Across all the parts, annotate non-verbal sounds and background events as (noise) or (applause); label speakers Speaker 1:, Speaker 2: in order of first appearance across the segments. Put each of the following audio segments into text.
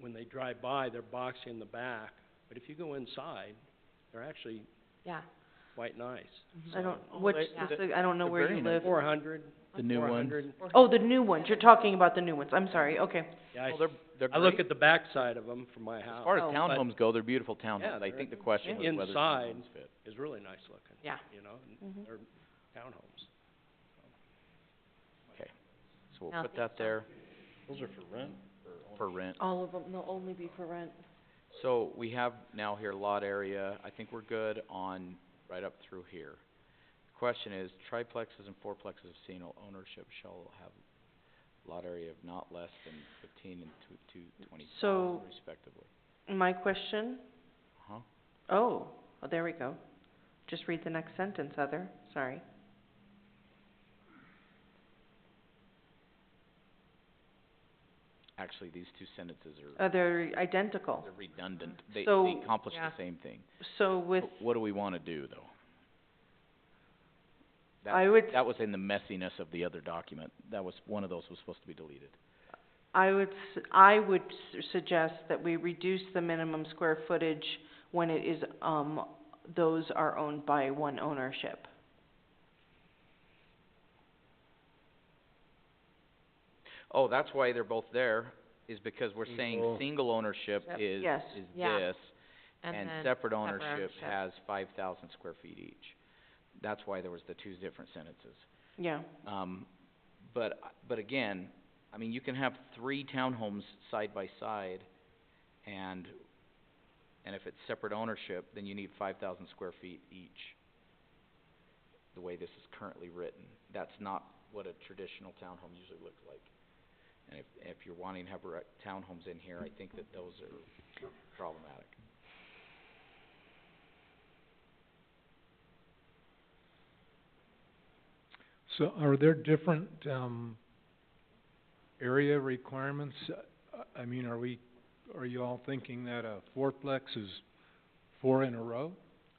Speaker 1: when they drive by, they're boxy in the back, but if you go inside, they're actually
Speaker 2: yeah.
Speaker 1: quite nice.
Speaker 3: I don't,
Speaker 4: Oh,
Speaker 3: which,
Speaker 4: they-
Speaker 3: specific- I don't know
Speaker 4: they're
Speaker 3: where
Speaker 4: very
Speaker 3: you
Speaker 4: nice.
Speaker 3: live.
Speaker 1: Four hundred,
Speaker 4: The new
Speaker 1: four
Speaker 4: one.
Speaker 1: hundred,
Speaker 3: Oh, the new ones, you're talking about the new ones, I'm sorry, okay.
Speaker 1: yeah, I,
Speaker 4: Well, they're, they're
Speaker 1: I look
Speaker 4: great. Um,
Speaker 1: at the backside of them from my
Speaker 4: As
Speaker 1: house,
Speaker 4: far as
Speaker 3: Oh.
Speaker 4: townhomes go, they're beautiful
Speaker 1: Yeah,
Speaker 4: townhomes. I
Speaker 1: they're-
Speaker 4: think the question was whether
Speaker 1: Inside.
Speaker 4: townhomes fit.
Speaker 1: it's really nice looking.
Speaker 2: Yeah.
Speaker 1: You know, and
Speaker 3: Mm-hmm.
Speaker 2: Mhm.
Speaker 1: they're townhomes.
Speaker 4: So
Speaker 2: No, I
Speaker 4: we'll put
Speaker 2: think
Speaker 4: that
Speaker 2: so.
Speaker 4: there
Speaker 5: Those are for rent?
Speaker 4: for rent.
Speaker 3: All of them, they'll only be for rent.
Speaker 4: So we have now here lot area, I think we're good on right up through here. Question is, triplexes and fourplexes of single ownership shall have lot area of not less than fifteen and two, two, twenty
Speaker 3: So-
Speaker 4: thousand respectively.
Speaker 3: My question,
Speaker 4: Huh?
Speaker 3: oh, well, there we go. Just read the next sentence, other, sorry.
Speaker 4: Actually, these two sentences are,
Speaker 3: Uh, they're identical,
Speaker 4: they're redundant. They, they
Speaker 3: So-
Speaker 4: accomplish
Speaker 2: Yeah.
Speaker 4: the same thing.
Speaker 3: so with,
Speaker 4: But What do we wanna do, though? That-
Speaker 3: I would-
Speaker 4: That was in the messiness of the other document. That was, one of those was supposed to be deleted.
Speaker 3: I would, s- I would s- suggest that we reduce the minimum square footage when it is, um, those are owned by one ownership.
Speaker 4: Oh, that's why they're both there, is because we're saying
Speaker 5: Single.
Speaker 4: single ownership
Speaker 2: Yep.
Speaker 4: is,
Speaker 3: Yes.
Speaker 4: is
Speaker 2: Yeah.
Speaker 4: this, and
Speaker 2: then
Speaker 4: separate ownership
Speaker 2: ownership.
Speaker 4: has five thousand square feet each. That's why there was the two different sentences.
Speaker 3: Yeah,
Speaker 4: Um, but, but again, I mean, you can have three townhomes side by side, and, and if it's separate ownership, then you need five thousand square feet each, the way this is currently written. That's not what a traditional townhome usually looks like. And if, if you're wanting to have rec- townhomes in here, I think that those are problematic.
Speaker 6: So are there different, um, area requirements? I, I mean, are we, are you all thinking that a fourplex is four in a row?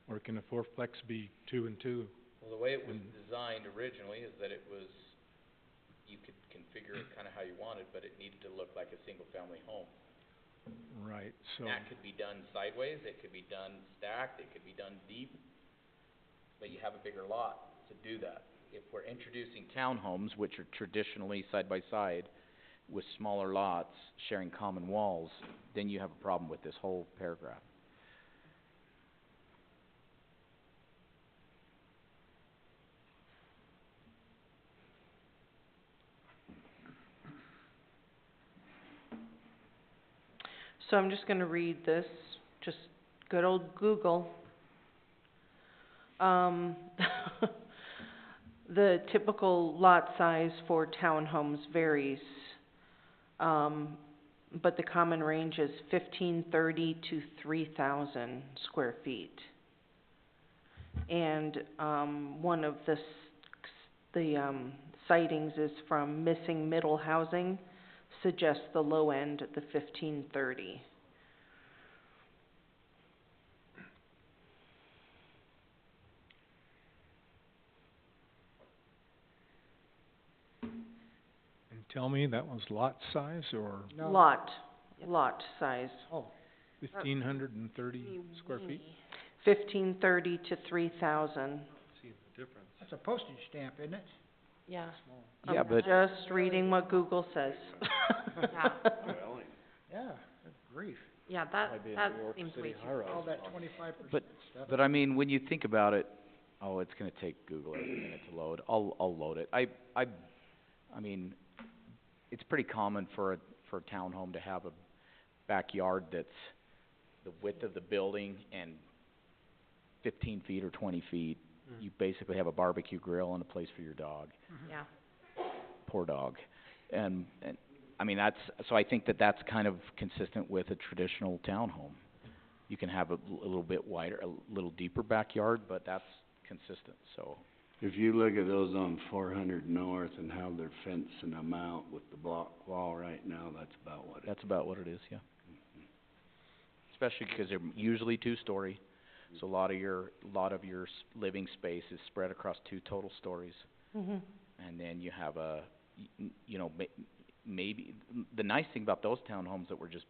Speaker 6: Or can a fourplex be two and two?
Speaker 7: Well, the way it was
Speaker 6: And-
Speaker 7: designed originally is that it was, you could configure it kinda how you wanted, but it needed to look like a single-family home.
Speaker 6: Right, so,
Speaker 7: And that could be done sideways, it could be done stacked, it could be done deep, but you have a bigger lot to do that. If we're introducing
Speaker 4: Townhomes, which are traditionally side by side with smaller lots sharing common walls, then you have a problem with this whole paragraph.
Speaker 3: so I'm just gonna read this, just good old Google. Um, (laughs) the typical lot size for townhomes varies, um, but the common range is fifteen thirty to three thousand square feet. And, um, one of the s- the, um, sightings is from Missing Middle Housing, suggests the low end at the fifteen thirty.
Speaker 6: and tell me, that was lot size or
Speaker 3: Lot, lot size,
Speaker 6: fifteen hundred and thirty square feet?
Speaker 3: fifteen thirty to three thousand.
Speaker 1: See the difference.
Speaker 5: That's a postage stamp, isn't it?
Speaker 2: Yeah,
Speaker 4: Yeah, but-
Speaker 3: Just reading what Google says.
Speaker 5: Yeah, good grief.
Speaker 2: yeah, that, that seems way too
Speaker 5: All that twenty-five percent
Speaker 4: But-
Speaker 5: stuff.
Speaker 4: But I mean, when you think about it, oh, it's gonna take Google a minute to load, I'll, I'll load it. I, I, I mean, it's pretty common for a, for a townhome to have a backyard that's the width of the building and fifteen feet or twenty feet. You basically have a barbecue grill and a place for your dog,
Speaker 2: yeah.
Speaker 4: poor dog. And, and, I mean, that's, so I think that that's kind of consistent with a traditional townhome. You can have a, l- a little bit wider, a little deeper backyard, but that's consistent, so.
Speaker 8: If you look at those on four hundred north and how they're fencing them out with the block wall right now, that's about what it
Speaker 4: That's about what it is, yeah. Especially because they're usually two-story, so a lot of your, a lot of your s- living space is spread across two total stories.
Speaker 3: Mhm.
Speaker 4: And then you have a, y- n- you know, ma- maybe, the nice thing about those townhomes that were just